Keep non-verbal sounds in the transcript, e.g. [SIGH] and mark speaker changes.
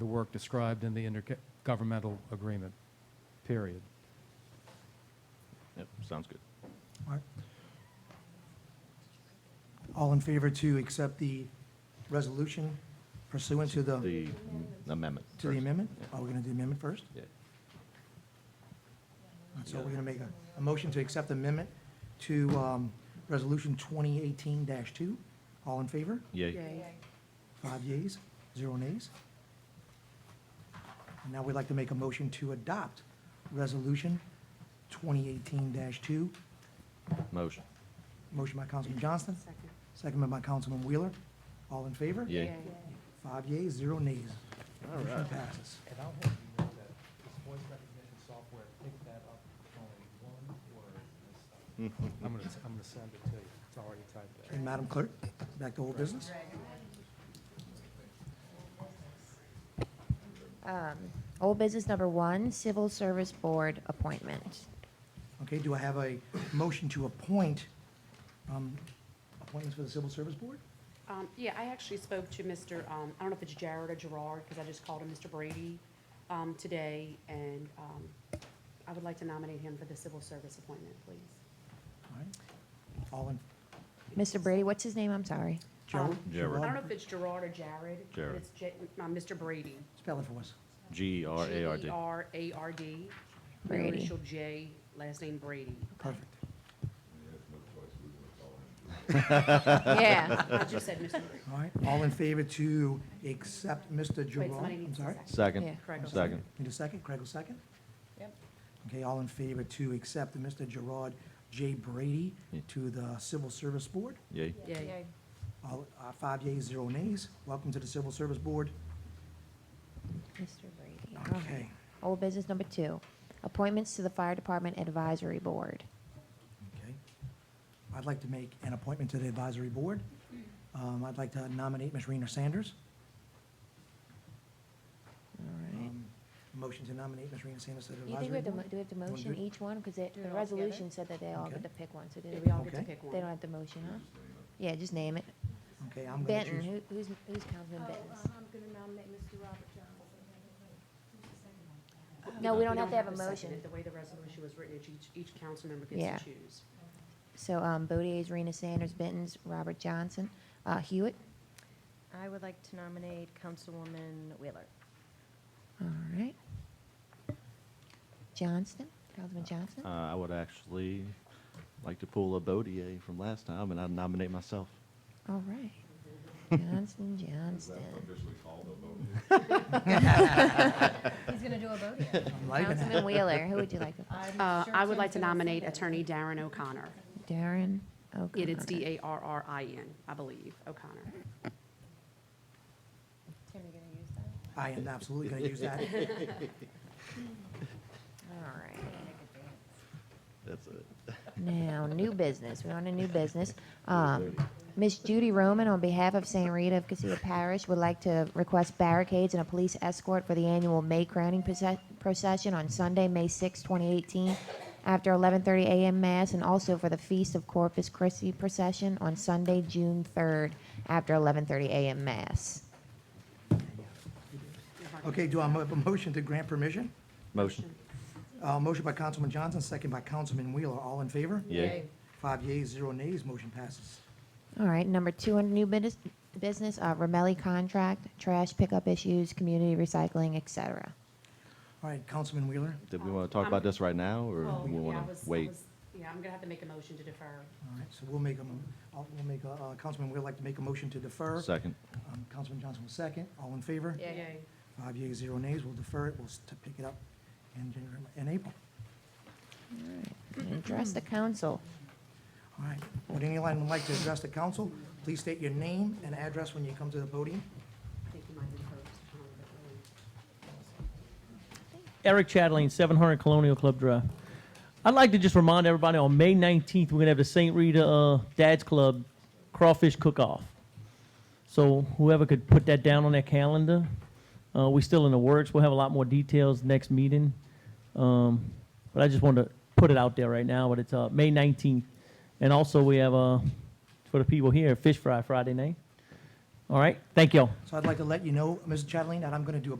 Speaker 1: the work described in the intergovernmental agreement, period.
Speaker 2: Yep, sounds good.
Speaker 3: All right. All in favor to accept the resolution pursuant to the,
Speaker 2: The amendment.
Speaker 3: to the
Speaker 2: first.
Speaker 3: amendment? Oh.
Speaker 2: Yeah.
Speaker 3: Are we going to do the amendment first?
Speaker 2: Yeah.
Speaker 3: So we're going to make a, a motion to accept amendment to um, Resolution 2018-2. All in favor?
Speaker 2: Yeah,
Speaker 4: Yay.
Speaker 3: Five yeas, zero nays. And Now we'd like to make a motion to adopt Resolution 2018-2.
Speaker 2: motion.
Speaker 3: Motion by Councilman Johnston,
Speaker 4: Second.
Speaker 3: seconded by Councilman Wheeler. All in favor?
Speaker 2: Yeah. Yay.
Speaker 3: Five yeas, zero nays. Motion passes.
Speaker 5: And I'll have you know that this voice recognition software picked that up on one word missed. I'm gonna, I'm gonna send it to you. It's already typed
Speaker 3: And Madam Clerk, back to old business?
Speaker 4: Old business number one, Civil Service Board appointment.
Speaker 3: Okay, do I have a motion to appoint, um, appointments for the Civil Service Board?
Speaker 6: Um, yeah, I actually spoke to Mr., um, I don't know if it's Jared or Gerard, because I just called him Mr. Brady, um, today, and, um, I would like to nominate him for the civil service appointment, please.
Speaker 3: All right. All in,
Speaker 4: Mr. Brady, what's his name? I'm sorry.
Speaker 3: Gerald?
Speaker 6: Um,
Speaker 2: Gerard.
Speaker 6: I don't know if it's Gerard or Jared. but
Speaker 2: Jared.
Speaker 6: It's J, uh, Mr. Brady.
Speaker 3: Spell it for us.
Speaker 2: G E R A R D.
Speaker 6: G-E-R-A-R-D,
Speaker 4: Brady.
Speaker 6: initial J, last name Brady.
Speaker 3: Perfect.
Speaker 4: [LAUGHS] Yeah.
Speaker 2: [LAUGHS]
Speaker 6: I just said Mr. Brady.
Speaker 3: All right, all in favor to accept Mr. Gerard?
Speaker 6: somebody
Speaker 3: I'm
Speaker 6: needs to
Speaker 3: sorry.
Speaker 6: second.
Speaker 2: Second.
Speaker 4: Yeah.
Speaker 6: Craig will
Speaker 2: Second.
Speaker 3: Need a second? Craig will second?
Speaker 6: Yep.
Speaker 3: Okay, all in favor to accept Mr. Gerard J. Brady
Speaker 2: Yeah.
Speaker 3: to the Civil Service Board?
Speaker 2: Yay.
Speaker 6: Yay.
Speaker 3: All, uh, five yeas, zero nays. Welcome to the Civil Service Board.
Speaker 4: Mr. Brady. all right.
Speaker 3: Okay.
Speaker 4: Old business number two, appointments to the Fire Department Advisory Board.
Speaker 3: Okay. I'd like to make an appointment to the advisory board. Um, I'd like to nominate Ms. Rena Sanders.
Speaker 4: All right.
Speaker 3: Um, Motion to nominate Ms. Rena Sanders to the
Speaker 4: Do you think
Speaker 3: advisory
Speaker 4: we have to, mo-
Speaker 3: board.
Speaker 4: do we have to
Speaker 3: wanna
Speaker 4: motion
Speaker 3: do-
Speaker 4: each one? Because the
Speaker 7: Do it all together?
Speaker 4: resolution said that they all get
Speaker 3: Okay.
Speaker 4: to pick one, so do
Speaker 6: Yeah,
Speaker 4: they
Speaker 6: we all
Speaker 4: they
Speaker 6: get to
Speaker 3: Okay.
Speaker 6: pick one.
Speaker 4: don't have the motion, huh? Yeah, just name it.
Speaker 3: Okay, I'm going to
Speaker 4: Benton,
Speaker 3: choose.
Speaker 4: who- who's, who's Councilman
Speaker 7: Oh,
Speaker 4: Benton's?
Speaker 7: um, I'm going to nominate Mr. Robert Johnson.
Speaker 4: No, we don't have to have a
Speaker 6: second.
Speaker 4: motion.
Speaker 6: The way the resolution was written, it's each, each council member
Speaker 4: Yeah.
Speaker 6: gets to choose.
Speaker 4: So, um, Bodie's, Rena Sanders, Benton's, Robert Johnson, uh, Hewitt.
Speaker 7: I would like to nominate Councilwoman Wheeler.
Speaker 4: All right. Johnston, Councilman Johnston.
Speaker 2: Uh, I would actually like to pull a Bodier from last time and I'd nominate myself.
Speaker 4: All right. Johnston, Johnston.
Speaker 7: He's going to do a vote here.
Speaker 3: I'm liking it.
Speaker 4: Councilman Wheeler, who would you
Speaker 7: [LAUGHS]
Speaker 4: like to?
Speaker 6: Uh, I would like to nominate Attorney Darren O'Connor.
Speaker 4: Darren
Speaker 6: It is
Speaker 4: O'Connor.
Speaker 6: D-A-R-R-I-N, I believe, O'Connor.
Speaker 7: Tim, you going to use that?
Speaker 3: I am absolutely going to use that.
Speaker 4: All right.
Speaker 2: That's it.
Speaker 4: Now, new business, we're on a new business. Um, Miss Judy Roman, on behalf of St. Rita of Cassia Parish, would like to request barricades and a police escort for the annual May crowning proce- procession on Sunday, May 6, 2018, after 11:30 a.m. Mass, and also for the Feast of Corpus Christi procession on Sunday, June 3rd, after 11:30 a.m. Mass.
Speaker 3: Okay, do I have a motion to grant permission?
Speaker 2: Motion.
Speaker 3: Uh, Motion by Councilman Johnson, second by Councilman Wheeler. All in favor?
Speaker 2: Yay.
Speaker 3: Five yeas, zero nays, motion passes.
Speaker 4: All right, number two under new business, business, uh, Ramelli contract, trash pickup issues, community recycling, et cetera.
Speaker 3: All right, Councilman Wheeler.
Speaker 2: Did we want to talk about this right now or
Speaker 6: Well,
Speaker 2: we
Speaker 6: yeah, I
Speaker 2: want
Speaker 6: was-
Speaker 2: to
Speaker 6: I
Speaker 2: wait?
Speaker 6: was- Yeah, I'm gonna have to make a motion to defer.
Speaker 3: All right, so we'll make a, mo- I'll- we'll make, a- uh, Councilman Wheeler like to make a motion to defer.
Speaker 2: Second.
Speaker 3: Um, Councilman Johnson will second. All in favor?
Speaker 7: Yeah.
Speaker 6: Yay.
Speaker 3: Five yeas, zero nays. We'll defer it. We'll s- to pick it up in January, in April.
Speaker 4: And Address the council.
Speaker 3: All right. Would anyone like to address the council? Please state your name and address when you come to the podium.
Speaker 6: I think you might have first. um, but, um,
Speaker 5: Eric Chatelain, 700 Colonial Club Drive. I'd like to just remind everybody on May 19th, we're going to have the St. Rita uh, Dad's Club crawfish cook off. So whoever could put that down on their calendar, uh, we're still in the works. We'll have a lot more details next meeting. Um, but I just wanted to put it out there right now, but it's uh, May 19th. And also, we have uh, for the people here, Fish Fry Friday night. All right. Thank y'all.
Speaker 3: So I'd like to let you know, Mr. Chatelain, that I'm going to do a